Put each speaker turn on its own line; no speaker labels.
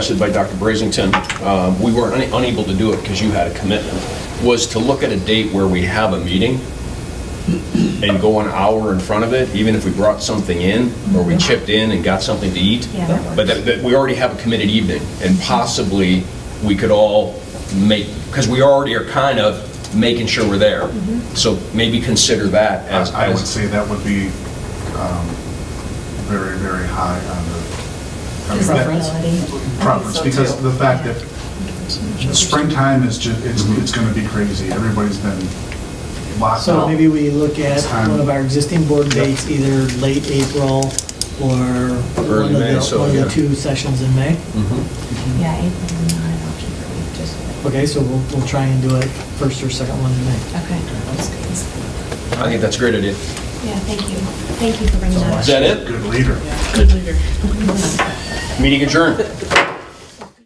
suggested by Dr. Brazington, um, we were un- unable to do it because you had a commitment, was to look at a date where we have a meeting and go an hour in front of it, even if we brought something in, or we chipped in and got something to eat.
Yeah, that works.
But that, that we already have a committed evening, and possibly we could all make, because we already are kind of making sure we're there. So maybe consider that as.
I I would
as-
say that would be um, very, very high on the. I mean, that-
Preference.
Preference, because the fact that springtime is just, it's, it's gonna be crazy. Everybody's been locked
So
up.
maybe we look at one of our existing board dates, either late April or one of
May,
the,
so,
one of
yeah.
the two sessions in May.
Mm-hmm.
Yeah, April is not an option for me, just.
Okay, so we'll, we'll try and do it first or second one in May.
Okay.
I think that's a great idea.
Yeah, thank you. Thank you for bringing that
Is
up.
that it?
Good leader.
Good leader.
Meeting adjourned.